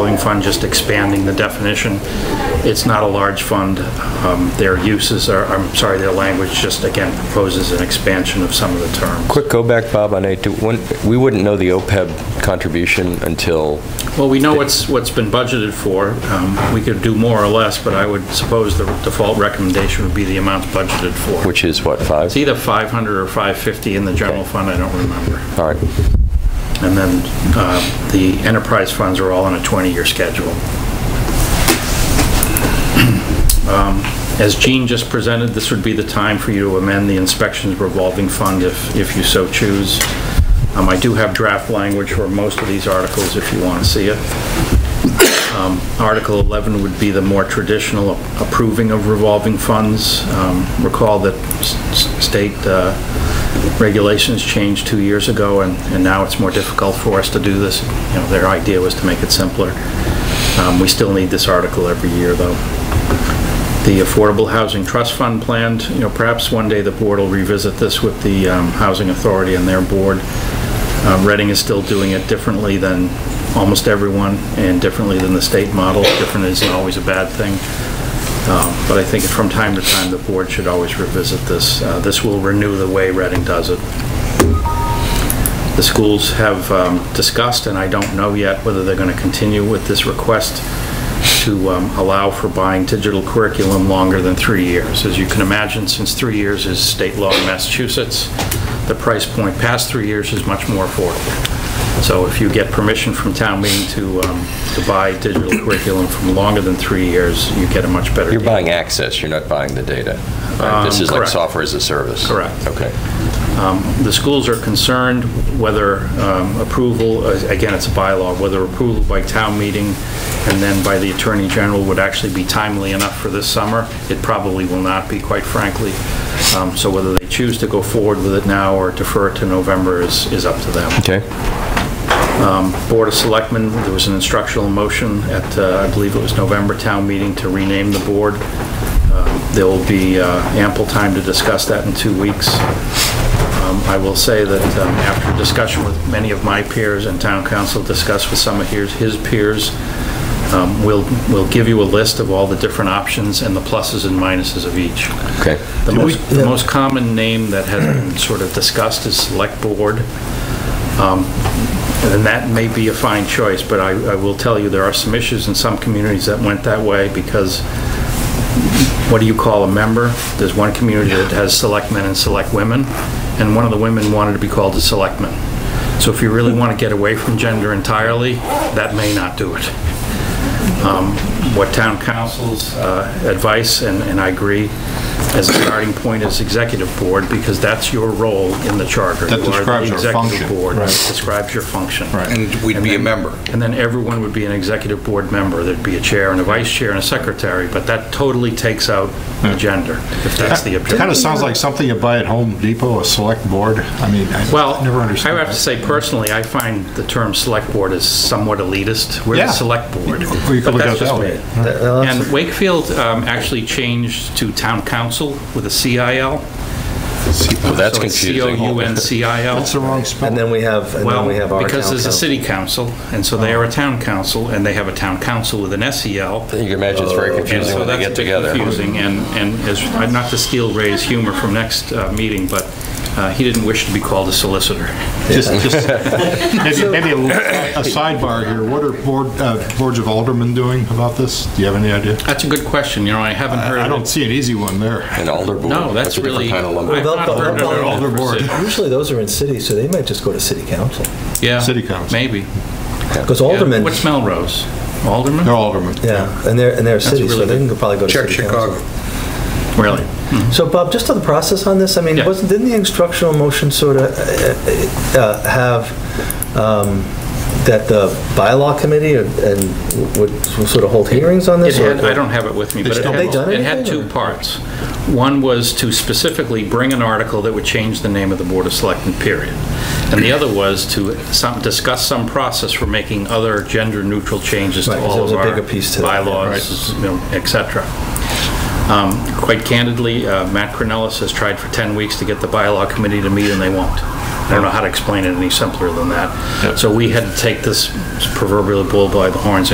revolving fund, just expanding the definition. It's not a large fund. Um, Their uses are, I'm sorry, their language just, again, proposes an expansion of some of the terms. Quick go back, Bob, on A2. When- We wouldn't know the OPEB contribution until, Well, we know what's, what's been budgeted for. Um, We could do more or less, but I would suppose the default recommendation would be the amounts budgeted for. which is what, five? It's either 500 or 550 in the general fund, I don't remember. All right. And then uh, the enterprise funds are all on a 20-year schedule. Um, As Gene just presented, this would be the time for you to amend the inspections revolving fund if, if you so choose. Um, I do have draft language for most of these articles if you want to see it. Um, Article 11 would be the more traditional approving of revolving funds. Um, Recall that s- s- state uh, regulations changed two years ago, and and now it's more difficult for us to do this. You know, their idea was to make it simpler. Um, We still need this article every year, though. The Affordable Housing Trust Fund planned, you know, perhaps one day the board will revisit this with the um, Housing Authority and their board. Um, Reading is still doing it differently than almost everyone, and differently than the state model. Different isn't always a bad thing. Um, But I think from time to time, the board should always revisit this. Uh, This will renew the way Reading does it. The schools have um, discussed, and I don't know yet whether they're going to continue with this request to um, allow for buying digital curriculum longer than three years. As you can imagine, since three years is state law in Massachusetts, the price point past three years is much more affordable. So if you get permission from town meeting to um, to buy digital curriculum from longer than three years, you get a much better deal. You're buying access, you're not buying the data. right? This Um, is like correct. software as a service. Correct. Okay. Um, The schools are concerned whether um, approval, uh, again, it's a bylaw, whether approval by town meeting and then by the Attorney General would actually be timely enough for this summer. It probably will not be, quite frankly. Um, So whether they choose to go forward with it now or defer it to November is is up to them. Okay. Board of Selectmen, there was an instructional motion at, uh, I believe it was November town meeting to rename the board. Uh, There will be uh, ample time to discuss that in two weeks. Um, I will say that um, after discussion with many of my peers and town council, discussed with some of his his peers, um, we'll, we'll give you a list of all the different options and the pluses and minuses of each. Okay. The most, the most common name that has been sort of discussed is Select Board. Um, And that may be a fine choice, but I, I will tell you, there are some issues in some communities that went that way because what do you call a member? There's one community that has select men and select women, and one of the women wanted to be called a selectman. So if you really want to get away from gender entirely, that may not do it. Um, What town council's uh, advice, and and I agree, as a starting point is executive board, because that's your role in the charter. That describes your You are the executive function. board. It Describes your function. And we'd be a then- member. And then everyone would be an executive board member. There'd be a chair and a vice chair and a secretary, but that totally takes out Hmm. the gender, if that's the It kind of objective. sounds like something you buy at Home Depot, a select board. I mean, I Well, never I understood have to that. say personally, I find the term select board is somewhat elitist. We're the Yeah. select board. Well, you could But look that's at it just that me. way. And Wakefield um, actually changed to town council with a CIL. Well, that's So it's confusing. C-O-U-N-C-I-L. That's the wrong spelling. And then we have, and then we have Well, our because there's a town city council, and so they are a town council, and they have a town council with an E SEL. You can imagine it's very And confusing Uh, so when they that's a get bit together. confusing, and, and as, not to steal Ray's humor from next uh, meeting, but uh, he didn't wish to be called a solicitor. Just, just, maybe, maybe a little- a sidebar here. What are board, uh, boards of aldermen doing about this? Do you have any idea? That's a good question, you know, I haven't heard I of don't it. see an easy one there. An alder board. No, that's a different really, I've kind of lumber. Well, not the- heard of the it. elder board. Precision. council. Usually those are in cities, so they might just go to city council. City Yeah, council. maybe. Because Yeah. aldermen, What's Melrose? Alderman? They're aldermen. yeah, and they're, and they're a cities, so really they good- can go- probably go to Check city council. Chicago. Mm-hmm. Really? So Bob, just on the process on this, I mean, Yeah. wasn't, didn't the instructional motion sort of uh, have um, that the bylaw committee and- and would sort of hold hearings on It this? or- had, I don't have it with me, but it still had, done it had anything, two or? parts. One was to specifically bring an article that would change the name of the Board of Selectmen, period. And the other was to some, discuss some process for making other gender-neutral changes Right, to 'cause all there was of a our bigger piece to that, yeah, bylaws, you know, et cetera. Um, Quite candidly, uh, Matt Cornelis has tried for 10 weeks to get the bylaw committee to meet, and they won't. I don't know how to explain it any simpler than that. So we had to take this proverbial bull by the horns